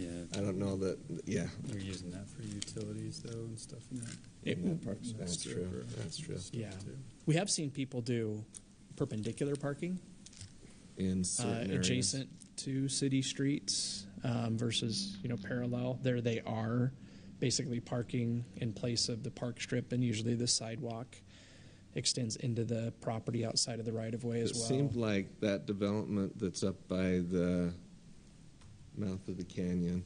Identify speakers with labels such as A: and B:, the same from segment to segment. A: I don't know that, yeah.
B: You're using that for utilities though and stuff in that.
C: It-
A: Yeah, parks-
B: and
A: That's
B: stuff
A: true,
B: for-
A: that's true.
B: stuff
C: Yeah.
B: too.
C: We have seen people do perpendicular parking
A: In
C: uh,
A: certain areas.
C: adjacent to city streets um, versus you know parallel. There they are, basically parking in place of the park strip, and usually the sidewalk extends into the property outside of the right of way as
A: It
C: well.
A: seemed like that development that's up by the mouth of the canyon,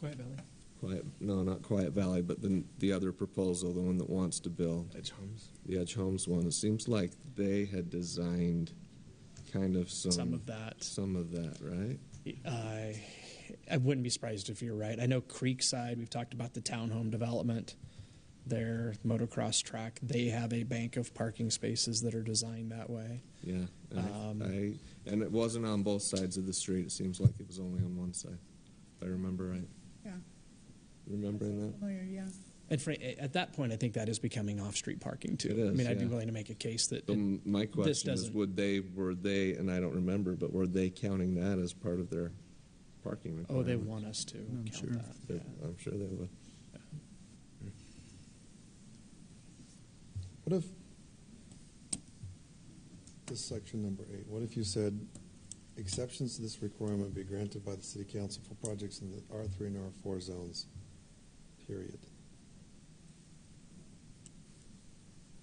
C: Quiet Valley.
A: Quiet, no, not Quiet Valley, but the, the other proposal, the one that wants to build. Edge Homes? The Edge Homes one. It seems like they had designed kind of some.
C: Some of that.
A: Some of that, right?
C: I I wouldn't be surprised if you're right. I know Creekside, we've talked about the townhome development, their motocross track. They have a bank of parking spaces that are designed that way.
A: Yeah. I-
C: Um,
A: I, and it wasn't on both sides of the street. It seems like it was only on one side, if I remember right.
D: Yeah.
A: Remembering that?
D: Familiar, yeah.
C: And fr- at that point, I think that is becoming off-street parking too.
A: It is,
C: I mean, I'd be
A: yeah.
C: willing to make a case that
A: So m- my
C: this
A: question is,
C: doesn't-
A: would they, were they, and I don't remember, but were they counting that as part of their parking
C: oh,
A: requirement?
C: they want us to count
B: sure.
C: that.
A: They-
C: Yeah.
A: I'm sure they would.
E: What if, this section number eight, what if you said, exceptions to this requirement be granted by the city council for projects in the R three and R four zones, period?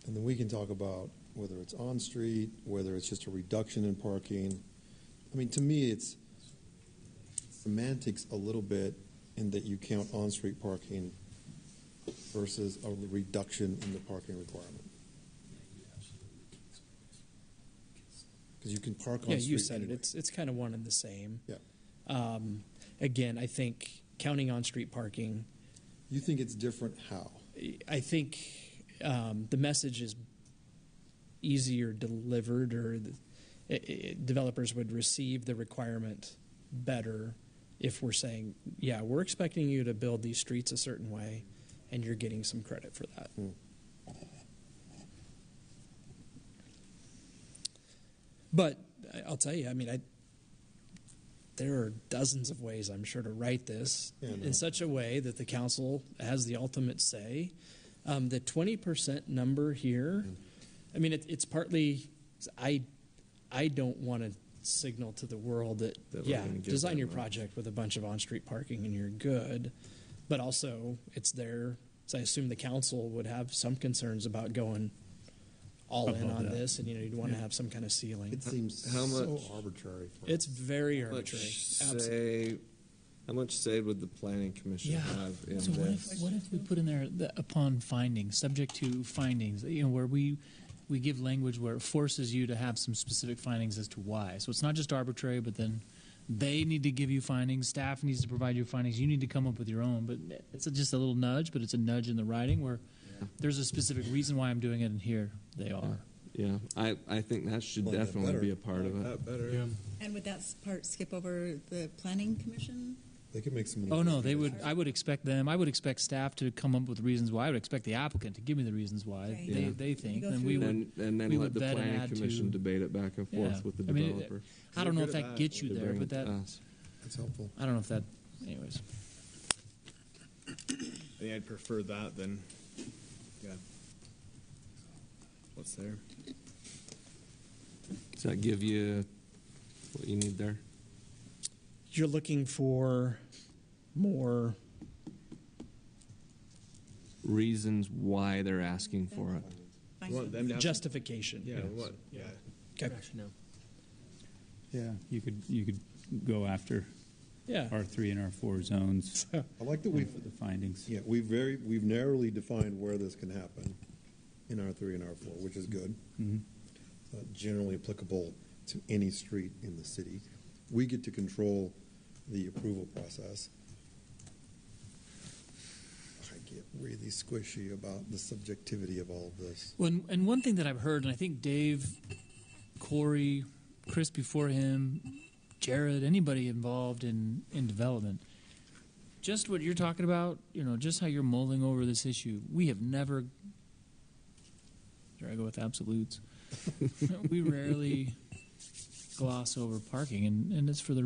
E: And then we can talk about whether it's on-street, whether it's just a reduction in parking. I mean, to me, it's semantics a little bit in that you count on-street parking versus a reduction in the parking requirement. Because you can park on
C: Yeah,
E: street.
C: you said it.
E: anyway.
C: It's it's kind of one and the same.
E: Yeah.
C: Um, again, I think counting on-street parking.
E: You think it's different how?
C: I think um, the message is easier delivered, or the, i i developers would receive the requirement better if we're saying, "Yeah, we're expecting you to build these streets a certain way, and you're getting some credit for that."
E: Hmm.
C: But I- I'll tell you, I mean, I there are dozens of ways I'm sure to write this
E: Yeah, I know.
C: in such a way that the council has the ultimate say. Um, the 20% number here, I mean, it, it's partly I I don't want to signal to the world that,
A: That we're
C: yeah,
A: gonna give
C: design
A: them
C: your
A: a-
C: project with a bunch of on-street parking and you're good, but also it's there. So I assume the council would have some concerns about going all in
B: Above
C: on
B: that.
C: this, and you know you'd want to have some kind of ceiling.
E: It seems
A: how
E: so
A: much-
E: arbitrary. for
C: It's
E: us.
C: very
A: How much
C: arbitrary. Absolutely.
A: say, how much say would the planning commission
F: Yeah.
A: have in
F: So what
A: this?
F: if, what if we put in there the, upon findings, subject to findings, you know, where we we give language where it forces you to have some specific findings as to why. So it's not just arbitrary, but then they need to give you findings, staff needs to provide you findings, you need to come up with your own. But it's just a little nudge, but it's a nudge in the writing where there's a specific reason why I'm doing it, and here they are.
A: Yeah, I, I think that should
E: Like that
A: definitely
E: better.
A: be a part of it.
B: That better. Yeah.
D: And would that s- part skip over the planning commission?
E: They could make some.
F: Oh no, they would. I would expect them. I would expect staff to come up with reasons why. I would expect the applicant to give me the reasons why
D: Right.
F: they,
A: Yeah.
F: they think.
D: go
F: Then
D: through
F: we
D: the-
F: would.
A: And, and then
F: we
A: let
F: would
A: the
F: vet and
A: planning
F: add to-
A: commission debate it back and
F: Yeah.
A: forth with the
F: I mean, it-
A: developer.
F: I don't know
B: Good
F: if
B: or
F: that
B: bad,
F: gets you
A: to
F: there,
A: bring
F: but that
A: us.
E: That's helpful.
F: I don't know if that. Anyways,
B: I think I'd prefer that than yeah. What's there?
A: Does that give you what you need there?
C: You're looking for more.
A: Reasons why they're asking for it.
B: We want them to have
C: Justification.
B: Yeah, we want- yeah.
C: Okay.
G: Yeah, you could, you could go after
C: Yeah.
G: R3 and R4 zones
E: I like that
G: for
E: we've,
G: the findings.
F: Mm-hmm.
E: yeah, we've very, we've narrowly defined where this can happen in R three and R four, which is good.
F: Mm-hmm.
G: Mhm.
E: It's not generally applicable to any street in the city. We get to control the approval process. I get really squishy about the subjectivity of all of this.
F: well, and, and one thing that I've heard, and I think Dave, Corey, Chris before him, Jared, anybody involved in in development, just what you're talking about. You know, just how you're mulling over this issue. We have never. There I go with absolutes. we rarely gloss over parking, and, and it's for the